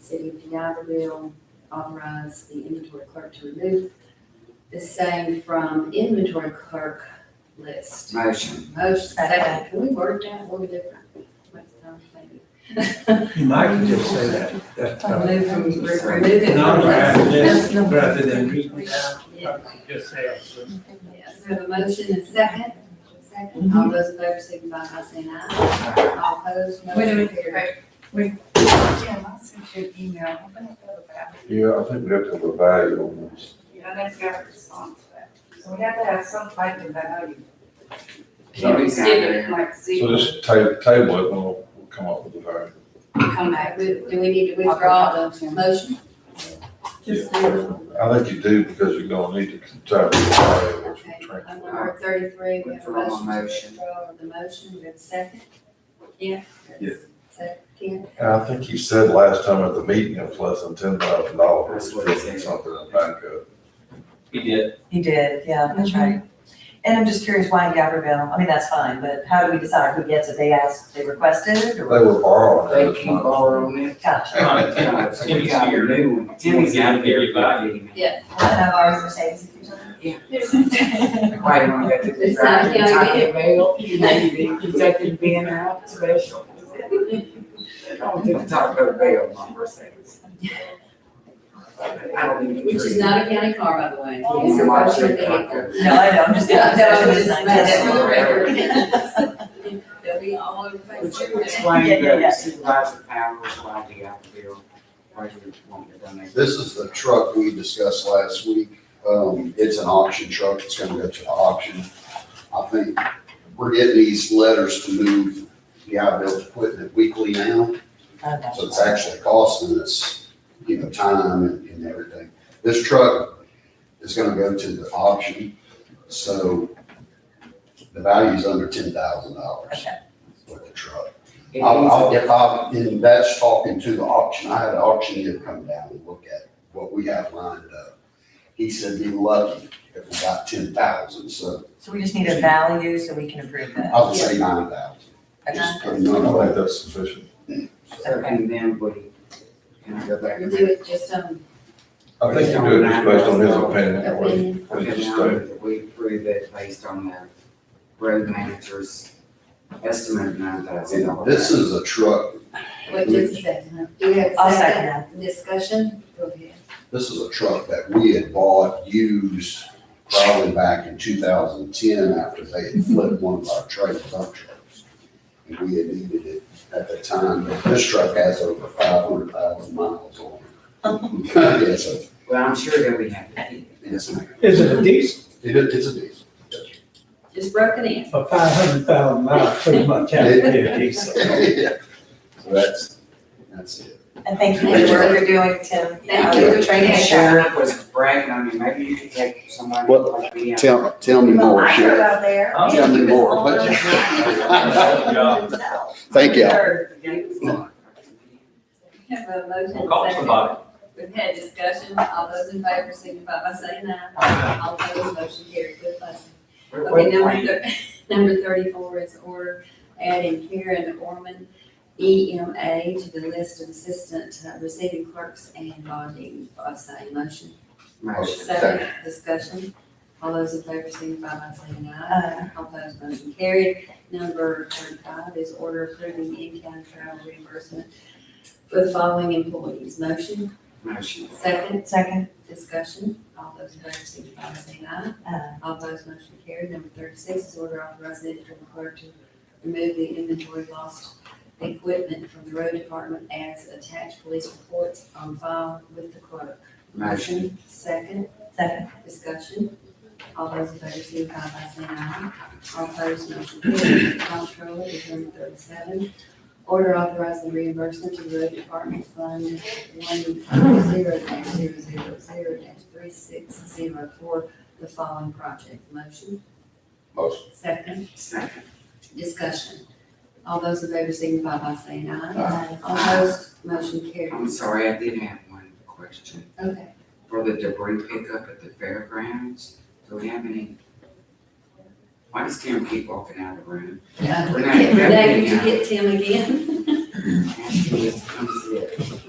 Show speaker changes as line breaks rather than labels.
City of Piattaville authorize the inventory clerk to remove the same from inventory clerk list.
Motion.
Motion second, can we word that a little different? Makes no sense.
You might could just say that, that, uh,
Remove from, re- remove it from
not
list.
rather than, rather than reading it out,
Yeah.
just say it.
Yes, we have a motion and second, second, all those in favor signify by saying aye. All opposed,
Wait a
motion
minute,
carries.
wait, wait. Jim, I sent you an email, I'm gonna go back.
Yeah, I think we have to have a value on this.
I never got a response to that. So we have to have some type of value.
Oh,
Can't be
Zero, Like
So
zero,
just ta- table it, and we'll we'll come up with a value.
come
Okay,
back.
we- Do we need to withdraw the motion?
Just
I think you do, because you're gonna need to determine the value of
Okay,
the
on
transfer.
number thirty-three, we have a
Withdraw my motion.
motion to withdraw the motion, we have a second? Yeah.
Yeah.
Second, Ken,
And I think you said last time at the meeting, it was less than ten thousand dollars,
That's what he said.
something in backup.
He did.
He did, yeah, that's right. And I'm just curious why in Gabrielle, I mean, that's fine, but how do we decide who gets it? They asked, they requested
They
or?
were borrowing. that
They
as
keep
much.
borrowing it.
Gotcha.
Timmy got a new one. Timmy's got a very value.
yes.
I don't know, ours Mercedes. if you're talking.
Why don't you have to
It's not, you know,
Taco Bell, you know, you did Kentucky being out special.
Don't do the Taco Bell, my Mercedes. I don't even.
Which is not a county car, by the way.
Oh,
It's a
you
watch
commercial
it,
vehicle.
Taco.
No, I know, I'm just, no, I'm just.
That's for the record.
Yeah,
They'll be all over
Would
Facebook.
you explain
Yeah, yeah, yeah.
the supervisor powers why the Alphaville, why you want to donate?
This is the truck we discussed last week. Um, it's an auction truck. It's gonna go to the auction. I think we're getting these letters to move the outbuilt equipment weekly now,
Okay.
so it's actually costing us, you know, time and, and everything. This truck is gonna go to the auction, so the value's under ten thousand dollars
Okay.
with the truck.
It
I'll, I'll,
needs
if I'm, and that's talking to the auction, I had an auctioneer come down and look at what we have lined up. He said be lucky if we got ten thousand, so
So we just need a value so we can approve that.
I would say nine thousand.
Okay.
Just put a
I
number
don't
on
think
it.
that's sufficient.
a certain then would he, can I go back?
You do it just um, on
I think you do it just based on his opinion. or what he-
opinion.
what he
Okay, now
stated.
that we approve it based on the road manager's estimate of nine thousand
And
dollars.
this is a truck,
Wait just a second, huh? Do we have
I'll
a
second
second
that.
discussion? Go ahead.
this is a truck that we had bought used probably back in two thousand and ten after they had flipped one of our trailer dump trucks. And we had needed it at the time, but this truck has over five hundred thousand miles on it. Yes, sir.
Well, I'm sure that we have to keep
Yes, ma'am.
Is it a diesel,
It is, it's a diesel.
Just broken in.
a five hundred thousand miles, pretty much, how to be a diesel?
Yeah. So that's, that's it.
And thank you for the work you're doing, Tim.
Thank you for training
The
us.
sheriff was bragging on me, maybe you could take someone
What?
like me out.
Tell, tell me
Well,
more,
I go
Sheriff.
out there.
Oh.
Tell me more.
He was
What
all alone.
Thank you.
We have a motion.
Well, call
second.
somebody.
We've had discussion, all those in favor signify by saying aye. All opposed, motion carried, good blessing. Okay, number, thir- number thirty-four is order adding Karen Orman, EMA, to the list of assistant uh, receiving clerks and bonding. I say motion.
Motion.
Second, discussion. All those in favor signify by saying aye.
Aye.
All opposed, motion carried. Number thirty-five is order approving in-kind travel reimbursement for the following employees. Motion,
Motion.
second,
Second,
discussion. All those in favor signify by saying aye.
uh,
All opposed, motion carried. Number thirty-six is order authorizing the interim clerk to remove the inventory lost equipment from the road department as attached police reports on file with the clerk.
Motion.
Second,
second,
discussion. All those in favor, signify by saying aye. All opposed, motion carried. Comptroller is number thirty-seven. Order authorizing reimbursement to the road department fund one zero dash zero zero zero dash three six zero four, the following project. Motion?
Motion.
Second,
Second.
discussion. All those in favor signify by saying aye.
uh,
All Opposed, motion
I'm
carries.
sorry, I did have one question.
Okay,
For the debris pickup at the fairgrounds, do we have any? Why does Tim keep walking out of the room?
uh, Renee,
Renee, Renee,
did you
yeah.
get Tim again?
Ask him to come sit.